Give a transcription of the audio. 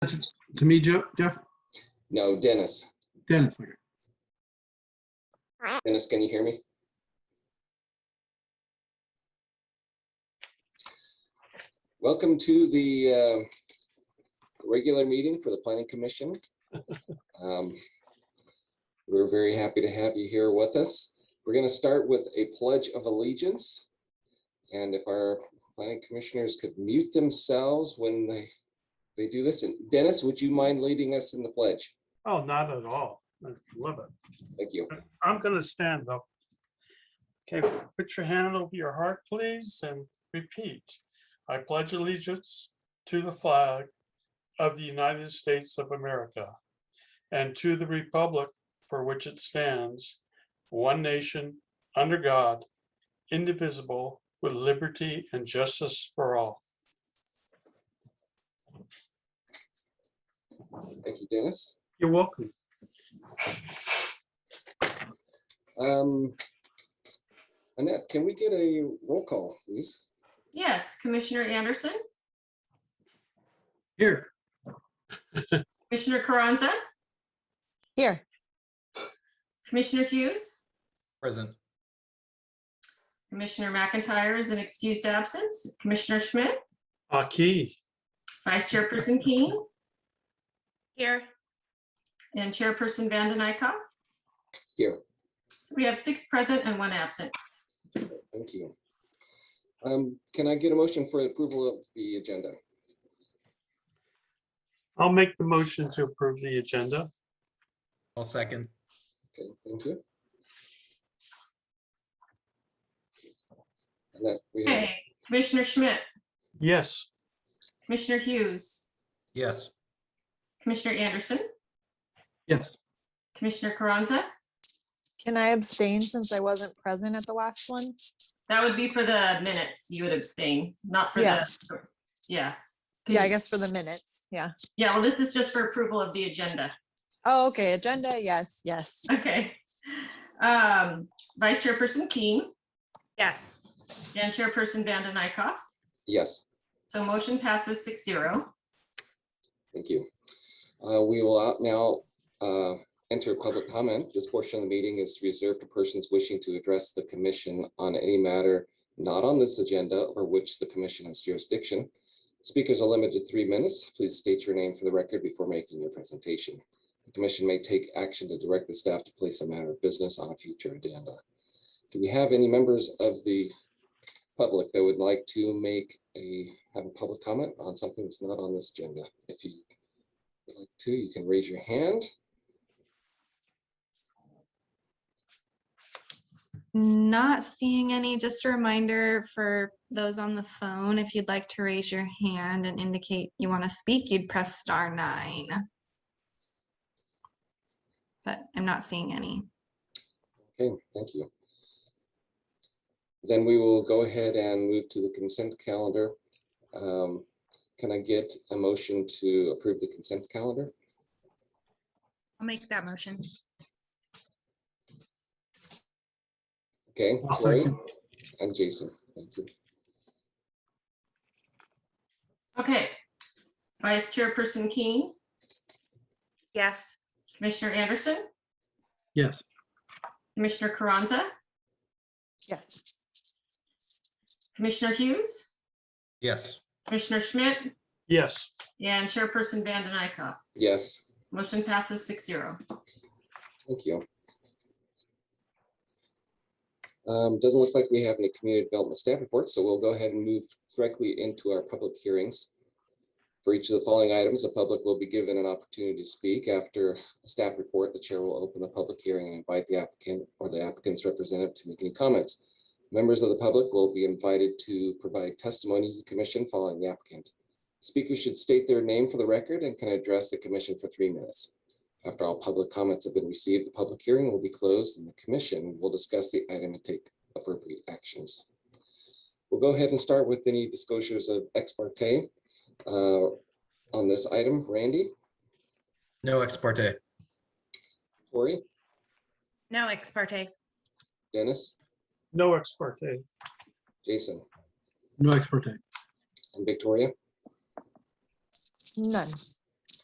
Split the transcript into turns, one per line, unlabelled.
To me, Jo- Jeff,
No, Dennis.
Dennis, okay.
Dennis, can you hear me? Welcome to the um, regular meeting for the Planning Commission. Um, We're very happy to have you here with us. We're going to start with a pledge of allegiance. And if our planning commissioners could mute themselves when they, they do this. And Dennis, would you mind leading us in the pledge?
Oh, not at all. I love it.
Thank you.
I'm gonna stand up. Okay, put your hand over your heart, please, and repeat. I pledge allegiance to the flag of the United States of America and to the republic for which it stands, one nation, under God, indivisible, with liberty and justice for all.
Thank you, Dennis.
You're welcome.
Um, Annette, can we get a roll call, please?
Yes, Commissioner Anderson,
Here,
Commissioner Carranza,
Here,
Commissioner Hughes,
Present.
Commissioner McIntyre is an excused absence, Commissioner Schmidt,
Aki,
Vice Chairperson Keene,
Here,
and Chairperson Vanden Eyck.
Here,
We have six present and one absent.
thank you. Um, can I get a motion for approval of the agenda?
I'll make the motion to approve the agenda.
I'll second.
Okay, thank you. Annette, we have,
Okay, Commissioner Schmidt,
Yes.
Commissioner Hughes,
Yes.
Commissioner Anderson,
yes,
Commissioner Carranza.
can I abstain since I wasn't present at the last one?
That would be for the minutes. You would abstain, not for
Yeah.
the, yeah.
Yeah, I guess for the minutes, yeah.
Yeah, well, this is just for approval of the agenda.
Oh, okay, agenda, yes, yes.
Okay. Um, Vice Chairperson Keene.
yes,
And Chairperson Vanden Eyck.
yes,
So motion passes six zero.
thank you. Uh, we will out now, uh, enter public comment. This portion of the meeting is reserved to persons wishing to address the commission on any matter not on this agenda or which the commission has jurisdiction. Speakers are limited to three minutes. Please state your name for the record before making your presentation. The commission may take action to direct the staff to place a matter of business on a future agenda. Do we have any members of the public that would like to make a, have a public comment on something that's not on this agenda? If you would like to, you can raise your hand.
Not seeing any. Just a reminder for those on the phone, if you'd like to raise your hand and indicate you want to speak, you'd press star nine. But I'm not seeing any.
Okay, thank you. Then we will go ahead and move to the consent calendar. Um, Can I get a motion to approve the consent calendar?
I'll make that motion.
Okay,
I'll
Lori
second.
and Jason, thank you.
Okay. Vice Chairperson Keene,
yes,
Commissioner Anderson,
yes,
Commissioner Carranza,
Yes,
Commissioner Hughes,
Yes.
Commissioner Schmidt,
Yes.
and Chairperson Vanden Eyck.
Yes,
Motion passes six zero.
thank you. Um, Doesn't look like we have any community development staff reports, so we'll go ahead and move directly into our public hearings. For each of the following items, the public will be given an opportunity to speak. After a staff report, the chair will open the public hearing and invite the applicant or the applicant's representative to make any comments. Members of the public will be invited to provide testimony to the commission following the applicant. Speakers should state their name for the record and can address the commission for three minutes. After all public comments have been received, the public hearing will be closed and the commission will discuss the item and take appropriate actions. We'll go ahead and start with any disclosures of ex parte uh, on this item. Randy,
No ex parte.
Tori,
no ex parte,
Dennis,
No ex parte.
Jason,
no expert.
and Victoria.
none.